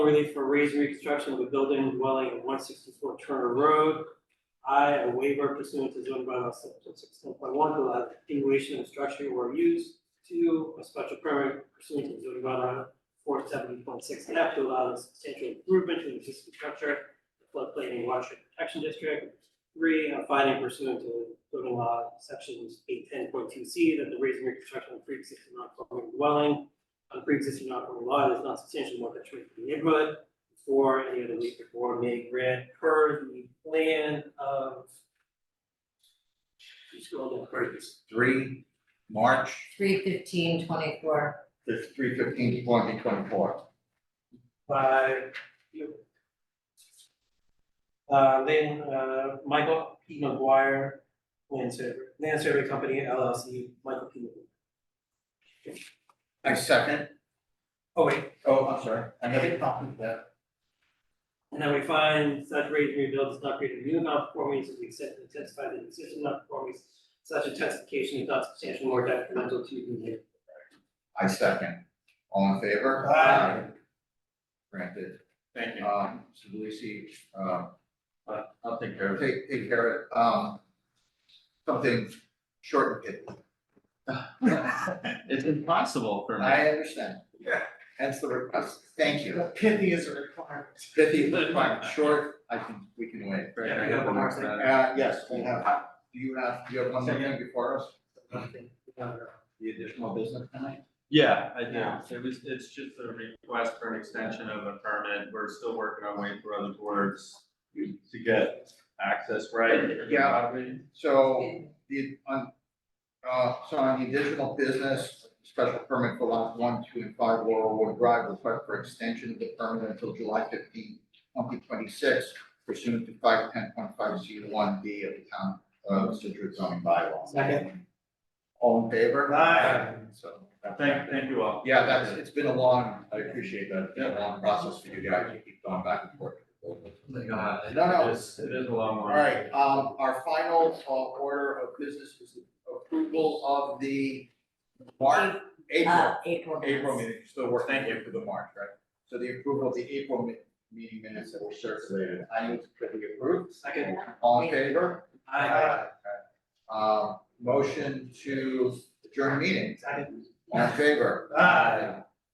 relief for raise and reconstruction of a building and dwelling at one sixty-four Turner Road. I, a waiver pursuant to zoning bylaw section sixteen point one, to allow the continuation of structure or use. Two, a special permit pursuant to zoning bylaw four seventy point six F to allow the substantial improvement to the existing structure, the floodplain and watershed protection district. Three, a finding pursuant to zoning law sections eight ten point two C that the raise and reconstruction of pre-existing non-conforming dwelling on pre-existing non-conforming lot is not substantially more detrimental to the neighborhood. Or any other legal board may grant per the plan of. You scroll down. What is this, three, March, three fifteen twenty-four, the three fifteen twenty twenty four. by you. Uh, Lynn, uh, Michael P. McGuire, Land Survey, Land Survey Company LLC, Michael P. McGuire. I second, Oh, wait, oh, I'm sorry, I have a copy of that. And then we find such raise and rebuild does not create a new non-conformity to the extent that intensify the existing non-conformities. Such intensification is not substantially more detrimental to the neighborhood. I second, all in favor? Aye. Granted, Thank you. Uh, um, so Lucy, um, I'll take care of it. take, take care of, um, something short and pithy. It's impossible for me. I understand. Yeah. Hence the request, thank you. Pithy is a requirement. Pithy, fine, short, I can, we can wait. Yeah, we have one more thing. Uh, yes, we have, do you have, do you have one more thing before us? The additional business tonight? Yeah, I do. It was, it's just a request for an extension of a permit. We're still working on waiting for other boards to get access, right? Yeah. So, the, on, uh, so on the additional business, special permit for lots one, two, and five Laurel Wood Drive, request for extension of the permit until July fifteenth, twenty twenty-six pursuant to five ten point five zero one B of the town of Citrus zoning bylaw. Second. All in favor? Aye. So. that's- Thank, thank you all. Yeah, that's, it's been a long, I appreciate that, it's been a long process for you guys, you keep going back and forth. No, no. It is, it is a long All one. right, um, our final uh, order of business is approval of the March, April, uh, April. April minutes. meeting, still working Thank you. for the March, right? So the approval of the April mi- meeting minutes that were circulated, I move to be approved. Second, All in favor? I, Uh, motion to adjourn meeting, second, all in favor? Aye.